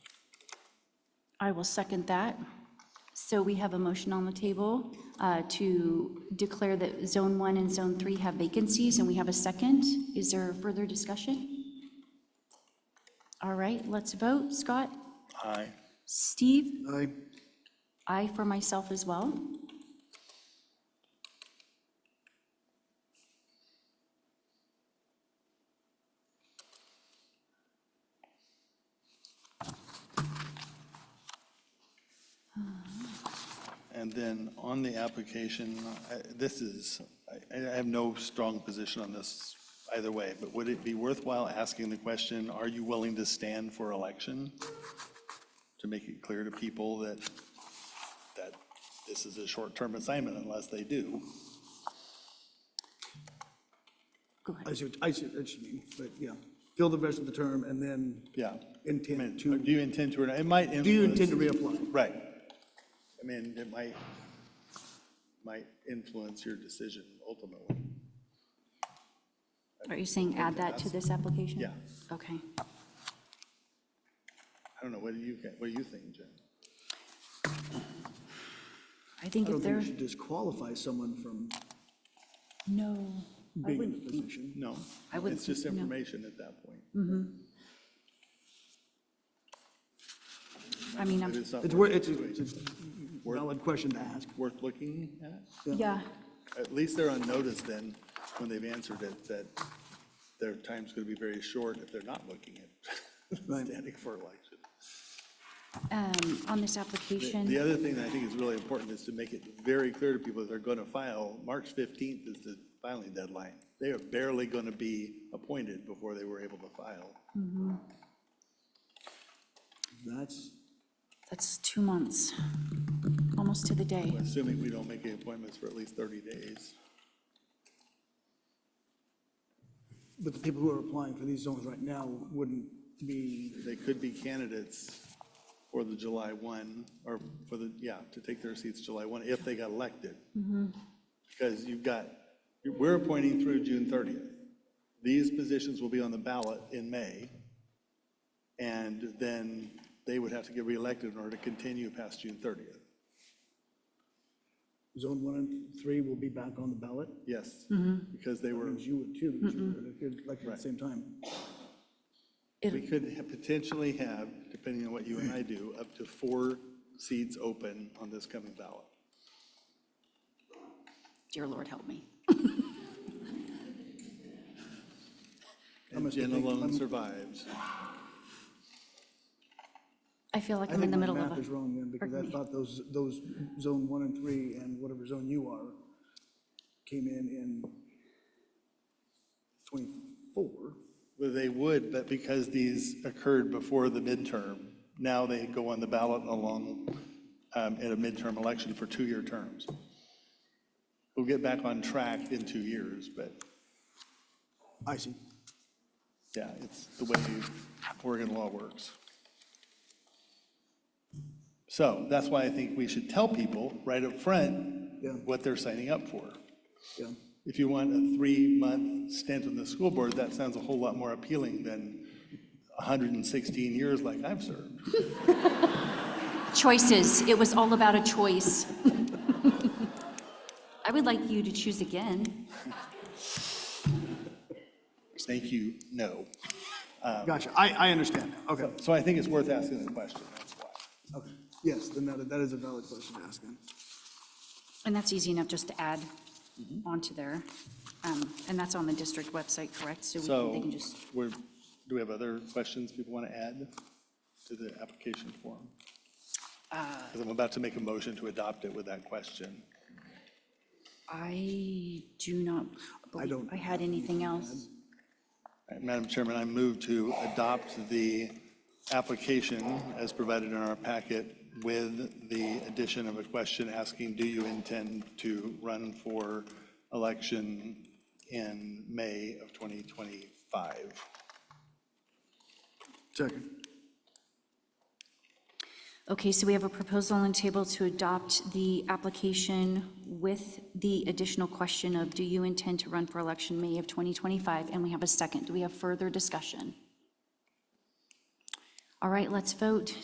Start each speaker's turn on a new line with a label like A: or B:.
A: I will second that.
B: So we have a motion on the table uh, to declare that Zone 1 and Zone 3 have vacancies, and we have a second. Is there further discussion? All right, let's vote. Scott?
C: Aye.
B: Steve?
C: Aye.
B: I for myself as well.
C: And then on the application, I- this is, I- I have no strong position on this either way, but would it be worthwhile asking the question, are you willing to stand for election? To make it clear to people that, that this is a short-term assignment unless they do.
B: Go ahead.
D: I see, what- I see, what you mean, but yeah, fill the rest of the term and then
C: Yeah. I mean,
D: intend to,
C: Do you intend to, or not? it might influence.
D: do you intend to reapply?
C: Right. I mean, it might, might influence your decision ultimately.
B: Are you saying add that to this application?
C: Yeah.
B: Okay.
C: I don't know, what do you, what do you think, Jen?
B: I think
D: I don't
B: if
D: think
B: they're,
D: we should disqualify someone from
B: no, I
D: being in the
B: wouldn't.
D: position.
C: No.
B: I wouldn't
C: It's just
B: think- no.
C: information at that point.
B: I mean,
C: If
B: I'm,
C: It's not
D: It's,
C: worth,
D: wor- it's a it's a valid question to ask.
C: worth looking at.
B: yeah,
C: At least they're on notice then, when they've answered it, that their time's going to be very short if they're not looking at
D: Right.
C: standing for election.
B: um, on this
C: The- The
B: application,
C: other thing that I think is really important is to make it very clear to people that they're going to file, March 15th is the filing deadline. They are barely going to be appointed before they were able to file.
D: That's,
B: that's two months, almost to the day.
C: assuming we don't make any appointments for at least 30 days.
D: but the people who are applying for these zones right now wouldn't be,
C: They could be candidates for the July 1, or for the, yeah, to take their seats July 1, if they got elected. Because you've got, we're appointing through June 30th. These positions will be on the ballot in May, and then they would have to get reelected in order to continue past June 30th.
D: zone one and three will be back on the ballot.
C: Yes, because they were,
D: Because you would too, because you were elected at the same time.
C: we could ha- potentially have, depending on what you and I do, up to four seats open on this coming ballot.
B: Dear Lord, help me.
C: And Jen alone survives.
B: I feel like
D: I
B: I'm in
D: think
B: the
D: my
B: middle
D: math
B: of
D: is
B: a,
D: wrong then, because I
B: me.
D: thought those, those zone one and three and whatever zone you are came in in 24.
C: Well, they would, but because these occurred before the midterm, now they go on the ballot along um, in a midterm election for two-year terms. We'll get back on track in two years, but
D: I see.
C: yeah, it's the way Oregon law works. So that's why I think we should tell people right up
D: Yeah.
C: front what they're signing up for.
D: Yeah.
C: If you want a three-month stint on the school board, that sounds a whole lot more appealing than 116 years like I've served.
B: choices, it was all about a choice. I would like you to choose again.
C: Thank you, no.
D: Gotcha. I, I understand. now. Okay.
C: So I think it's worth asking the question, that's why.
D: Okay. Yes, then that, that is a valid question to ask then.
B: And that's easy enough just to add
D: Mm-hmm.
B: onto there. Um, And that's on the district website, correct? So we can- they
C: So
B: can just,
C: we're, do we have other questions people want to add to the application form?
B: Uh,
C: Because I'm about to make a motion to adopt it with that question.
B: I do not believe
D: don't
B: I had anything else.
C: All right, Madam Chairman, I move to adopt the application as provided in our packet with the addition of a question asking, do you intend to run for election in May of 2025?
D: Second.
B: Okay, so we have a proposal on the table to adopt the application with the additional question of, do you intend to run for election May of 2025? And we have a second. Do we have further discussion? All right, let's vote.